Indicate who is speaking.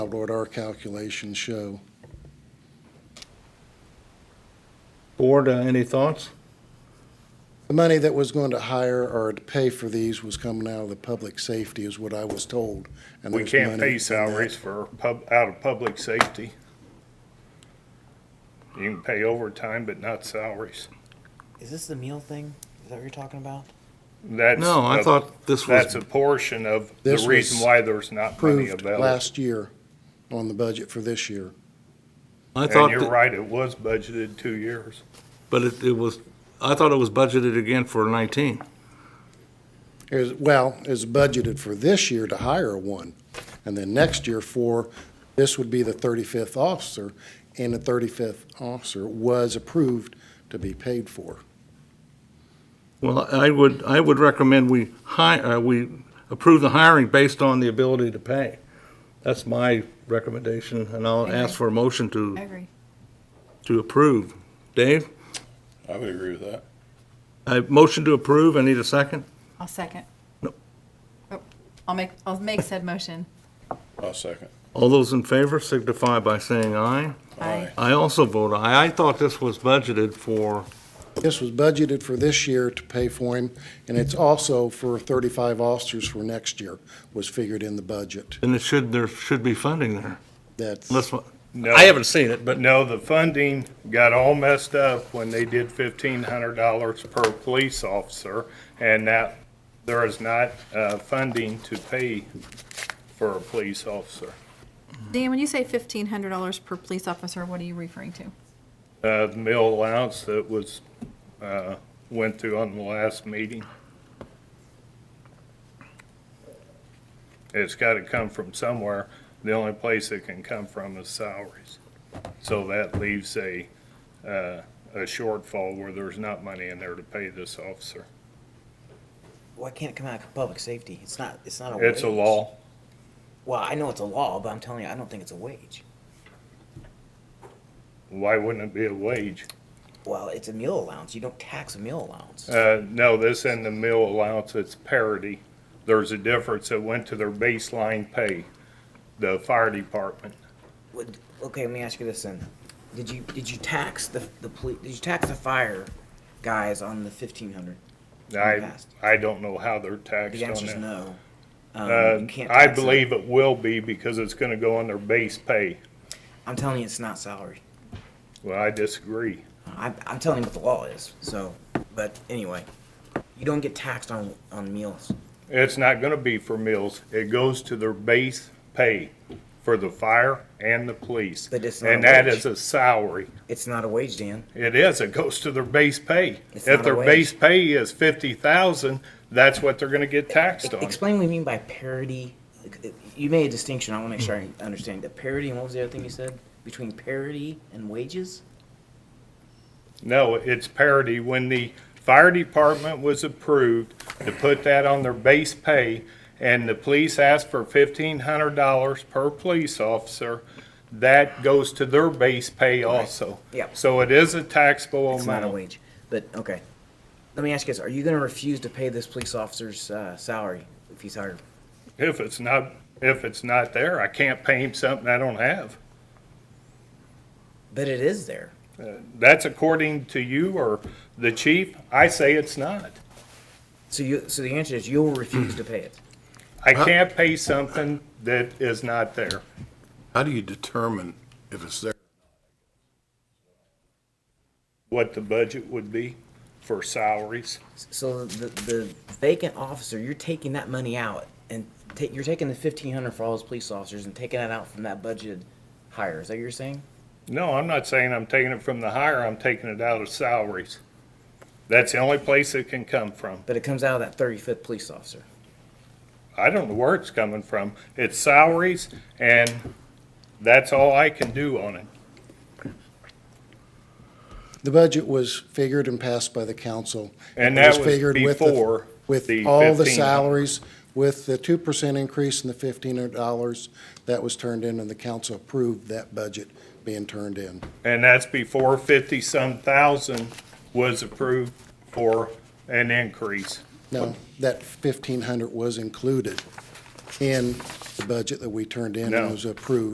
Speaker 1: Lord, our calculations show.
Speaker 2: Board, uh, any thoughts?
Speaker 1: The money that was going to hire or to pay for these was coming out of the public safety is what I was told. and
Speaker 3: We
Speaker 1: there's
Speaker 3: can't
Speaker 1: money in
Speaker 3: pay
Speaker 1: that.
Speaker 3: salaries for pub, out of public safety. You can pay overtime, but not salaries.
Speaker 4: Is this the meal thing? Is that what you're talking about?
Speaker 3: That's.
Speaker 2: No, I
Speaker 3: a-
Speaker 2: thought this was-
Speaker 3: That's a portion of the
Speaker 1: This
Speaker 3: reason
Speaker 1: was
Speaker 3: why there's not money
Speaker 1: Approved
Speaker 3: available.
Speaker 1: last year on the budget for this year.
Speaker 2: I
Speaker 3: And
Speaker 2: thought,
Speaker 3: you're
Speaker 2: that-
Speaker 3: right, it was budgeted two years.
Speaker 2: but it, it was, I thought it was budgeted again for nineteen.
Speaker 1: Is, well, is budgeted for this year to hire one. And then next year for, this would be the thirty-fifth officer, and the thirty-fifth officer was approved to be paid for.
Speaker 2: Well, I would, I would recommend we hi, uh, we approve the hiring based on the ability to pay. That's my recommendation, and I'll ask for a motion
Speaker 5: I
Speaker 2: to,
Speaker 5: agree.
Speaker 2: to approve. Dave,
Speaker 6: I would agree with that.
Speaker 2: a motion to approve, I need a second?
Speaker 5: I'll second.
Speaker 2: Nope.
Speaker 5: Oh, I'll make, I'll make said motion.
Speaker 6: I'll second.
Speaker 2: All those in favor signify by saying aye.
Speaker 5: Aye.
Speaker 2: I also vote aye. I thought this was budgeted for,
Speaker 1: This was budgeted for this year to pay for him, and it's also for 35 officers for next year was figured in the budget.
Speaker 2: and it should, there should be funding there.
Speaker 1: That's,
Speaker 2: Unless,
Speaker 3: No.
Speaker 2: I haven't seen it, but
Speaker 3: No, the funding got all messed up when they did fifteen hundred dollars per police officer, and that there is not, uh, funding to pay for a police officer.
Speaker 5: Dan, when you say fifteen hundred dollars per police officer, what are you referring to?
Speaker 3: Uh, the meal allowance that was, uh, went through on the last meeting. It's gotta come from somewhere. The only place it can come from is salaries. So that leaves a, uh, a shortfall where there's not money in there to pay this officer.
Speaker 4: Why can't it come out of public safety? It's not. It's not a.
Speaker 3: It's a
Speaker 4: wage.
Speaker 3: law.
Speaker 4: Well, I know it's a law, but I'm telling you, I don't think it's a wage.
Speaker 3: Why wouldn't it be a wage?
Speaker 4: Well, it's a meal allowance. You don't tax a meal allowance.
Speaker 3: Uh, no, this and the meal allowance, it's parity. There's a difference that went to their baseline pay, the fire department.
Speaker 4: Would- okay, let me ask you this then: Did you did you tax the the police? Did you tax the fire guys on the fifteen hundred?
Speaker 3: I, I don't know how they're taxed
Speaker 4: The answer is
Speaker 3: on that.
Speaker 4: no. Um, you
Speaker 3: Uh,
Speaker 4: can't
Speaker 3: I
Speaker 4: tax them.
Speaker 3: believe it will be because it's gonna go on their base pay.
Speaker 4: I'm telling you, it's not salary.
Speaker 3: Well, I disagree.
Speaker 4: I'm, I'm telling you what the law is. So, but anyway, you don't get taxed on on meals.
Speaker 3: It's not gonna be for meals. It goes to their base pay for the fire and the police.
Speaker 4: But it's not
Speaker 3: And
Speaker 4: a
Speaker 3: that
Speaker 4: wage.
Speaker 3: is a salary.
Speaker 4: It's not a wage, Dan.
Speaker 3: It is. It goes to their base pay.
Speaker 4: It's not
Speaker 3: If
Speaker 4: a
Speaker 3: their
Speaker 4: wage.
Speaker 3: base pay is fifty thousand, that's what they're gonna get taxed on.
Speaker 4: Explain what you mean by parity. You made a distinction. I want to make sure I understand. The parity and what was the other thing you said? Between parity and wages?
Speaker 3: No, it's parity. When the fire department was approved to put that on their base pay, and the police asked for fifteen hundred dollars per police officer, that goes to their base pay also.
Speaker 4: Yep.
Speaker 3: So it is a taxable
Speaker 4: It's not a
Speaker 3: amount.
Speaker 4: wage. But, okay. Let me ask you this. Are you going to refuse to pay this police officer's uh, salary if he's hired?
Speaker 3: If it's not, if it's not there, I can't pay him something I don't have.
Speaker 4: But it is there.
Speaker 3: That's according to you or the chief. I say it's not.
Speaker 4: So you, so the answer is you'll refuse to pay it.
Speaker 3: I can't pay something that is not there.
Speaker 6: How do you determine if it's there?
Speaker 3: What the budget would be for salaries.
Speaker 4: So the, the vacant officer, you're taking that money out and ta- you're taking the fifteen hundred for all those police officers and taking that out from that budgeted hire. Is that what you're saying?
Speaker 3: No, I'm not saying I'm taking it from the hire, I'm taking it out of salaries. That's the only place it can come from.
Speaker 4: But it comes out of that thirty-fifth police officer.
Speaker 3: I don't know where it's coming from. It's salaries, and that's all I can do on it.
Speaker 1: the budget was figured and passed by the council.
Speaker 3: And
Speaker 1: It
Speaker 3: that was
Speaker 1: figured with the-
Speaker 3: before the
Speaker 1: With all the
Speaker 3: 15.
Speaker 1: salaries, with the two percent increase and the fifteen hundred dollars, that was turned in, and the council approved that budget being turned in.
Speaker 3: And that's before fifty-some thousand was approved for an increase.
Speaker 1: No, that fifteen hundred was included in the budget that we turned in
Speaker 3: No.
Speaker 1: and was approved.